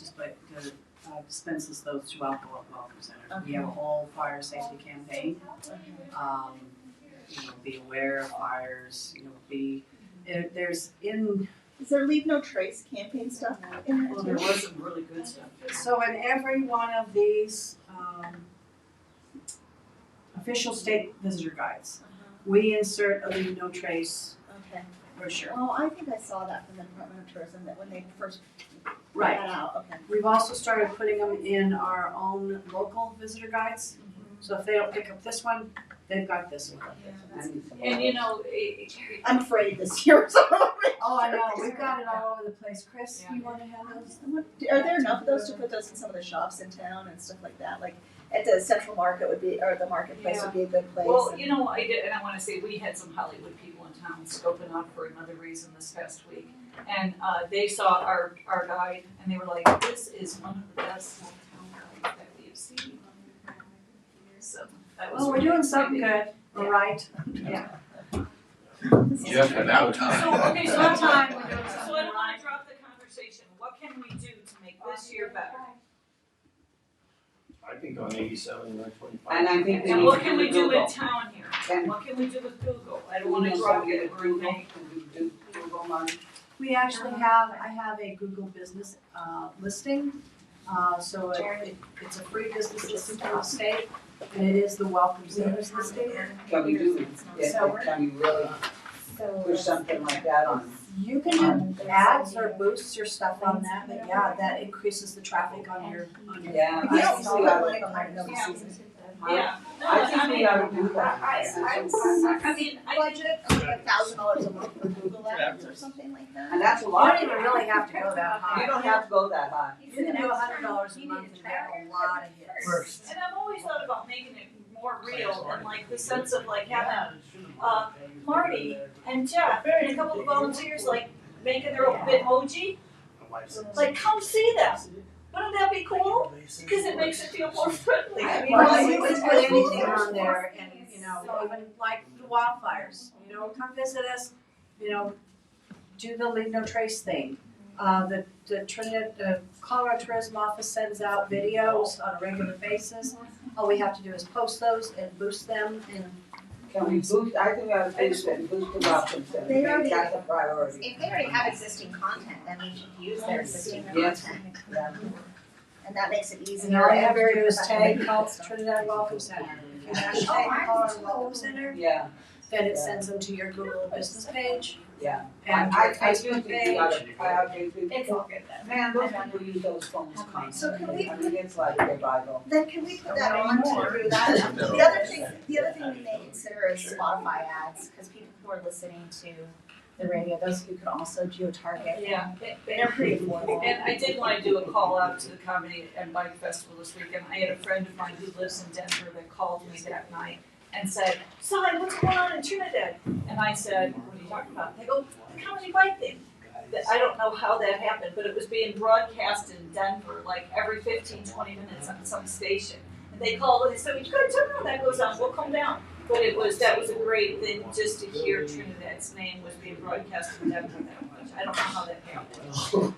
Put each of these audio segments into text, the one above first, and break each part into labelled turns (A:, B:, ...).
A: that uh, dispenses those to alcohol at welcome centers. We have a whole fire safety campaign. Um, you know, be aware of fires, you know, be, there, there's in,
B: Is there leave no trace campaign stuff in
A: well,
B: there
A: there
B: too?
A: was some really good stuff. So in every one of these, um, official state visitor guides, we insert a leave no trace
B: Okay.
A: brochure.
B: Oh, I think I saw that from the Department of Tourism that when they first put
A: Right,
B: that out. Okay.
A: We've also started putting them in our own local visitor guides. So if they don't pick up this one, they've got this one. And,
C: And you know, it, it,
B: I'm afraid this year. so-
A: oh, I know, we've got it all over the place. Chris, you wanna have those?
B: Are there enough of those to put those in some of the shops in town and stuff like that? Like at the Central Market would be, or the marketplace would be a good place.
C: well, you know, I did, and I wanna say, we had some Hollywood people in town scoping out for another reason this past week. And, uh, they saw our, our guide and they were like, this is one of the best hometown guides that we have seen. So, that was.
A: Well, we're
C: really
A: doing something
C: exciting.
A: good, all right.
D: Yeah, for now time.
C: So, Oh, okay, so I'm
A: Sometime we're doing something
C: So I don't
A: right.
C: wanna drop the conversation, what can we do to make this year better?
E: I think on eighty-seven, nine twenty-five.
F: And I think we
C: And
F: need
C: what
F: to
C: can
F: do
C: we do in
F: Google.
C: town here?
F: And-
C: What can we do with Google? I
F: I
C: don't wanna drop it or
F: Google,
C: anything.
F: can we do Google money?
A: We actually have, I have a Google business uh, listing. Uh, So it- it- it's a free business listing for the state and it is the welcome centers listing.
F: Can we do, yeah, can we really push something like that on?
A: You can do ads or boosts your stuff on that, but yeah, that increases the traffic on your, on your.
F: Yeah,
B: You
F: I
B: don't
F: think
B: see
F: we
B: that
F: ought
B: like on our
F: to.
B: notice season.
C: Yeah. No,
F: I think we
C: mean,
F: ought to do that.
C: I, I, I, I mean, I,
B: Budget of like a thousand dollars a month for Google Ads or something like that.
F: And that's a
A: You don't
F: lot.
A: even really have to go that
F: You
A: high.
F: don't have to go that high.
A: You can do a hundred dollars a month and get a lot of hits.
C: and I've always thought about making it more real and like the sense of like having, uh, Marty and Jeff and a couple of volunteers like making their own bitmoji, like come see them. Wouldn't that be cool? Cause it makes it feel more friendly. I mean,
A: Well,
C: like-
A: you can put anything on there and, you know, even like the wildfires, you know, come visit us, you know, do the leave no trace thing. Uh, the, the Trinidad, the Colorado Tourism Office sends out videos on a regular basis. All we have to do is post those and boost them and
F: Can we boost, I think we ought to boost it, boost the welcome center.
B: They already-
F: That's a priority.
G: If they already have existing content, then we should use their existing
F: Yes.
G: content.
F: Yeah.
G: And that makes it easier.
A: And all you have to
G: Very
A: do is tag
G: professional.
A: Health Trinidad Welcome Center. If you hashtag Health Welcome Center,
F: Yeah,
A: then it sends them to your Google business page
F: yeah.
A: and
F: I,
A: your
F: I, I do
A: Facebook
F: think we
A: page.
F: ought to, I I do think.
C: It's all good then.
F: Man, those people use those phones
B: So can
F: constantly.
B: we
F: I mean, it's like their Bible.
B: Then can we put that on to do that?
D: No.
B: The other thing, the other thing we may
G: Consider is Spotify ads, because people who are listening to the radio, those who could also geo-target.
C: Yeah, it-
G: They're pretty affordable.
C: And I did wanna do a call out to the comedy and bike festival this weekend, I had a friend of mine who lives in Denver that called me that night and said, Si, what's going on in Trinidad? And I said, what are you talking about? They go, the comedy bike thing. That- I don't know how that happened, but it was being broadcast in Denver, like every 15, 20 minutes on some station. And they called and they said, you gotta turn around, that goes on, we'll come down. But it was, that was a great thing, just to hear Trinidad's name was being broadcast in Denver that much, I don't know how that happened.
D: That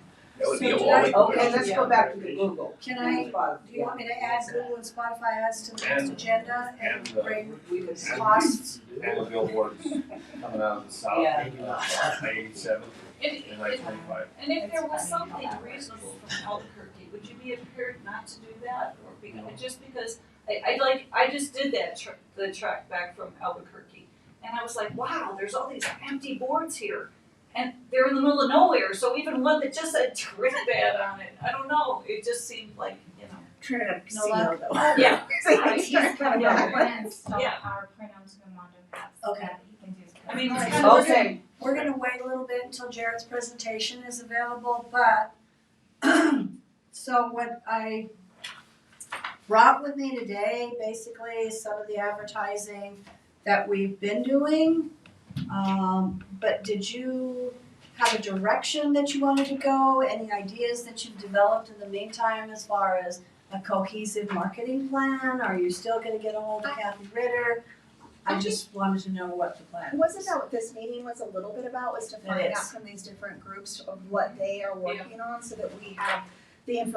D: would be a
A: So
D: wall.
A: did
F: Okay, let's go back to the Google.
A: Can I,
F: Spotify,
A: do you want me to add Google and Spotify ads to the next
E: And-
A: agenda and
E: and, uh,
A: bring
F: yeah. We could
A: costs?
E: And the billboards coming out of the south,
F: Yeah.
E: maybe not south, eighty-seven
C: And,
E: and nine twenty-five.
C: and if there was something reasonable from Albuquerque, would you be impaired not to do that? Or be, just because, I, I like, I just did that tr- the trek back from Albuquerque. And I was like, wow, there's all these empty boards here. And they're in the middle of nowhere, so even one that just said Trinidad on it, I don't know, it just seemed like, you know.
B: turn it up
A: No luck.
B: casino though.
C: Yeah.
B: Yeah.
C: Yeah.
A: Okay.
C: I mean, it's kind of.
F: Okay,
A: We're gonna wait a little bit until Jared's presentation is available, but so what I brought with me today, basically, is some of the advertising that we've been doing. Um, but did you have a direction that you wanted to go? Any ideas that you've developed in the meantime as far as a cohesive marketing plan? Are you still gonna get a hold of Kathy Ritter? I just wanted to know what the plan was.
B: Wasn't that what this meeting was a little bit about, was to
A: It
B: find
A: is.
B: out from these different groups of what they are working on so that we have the information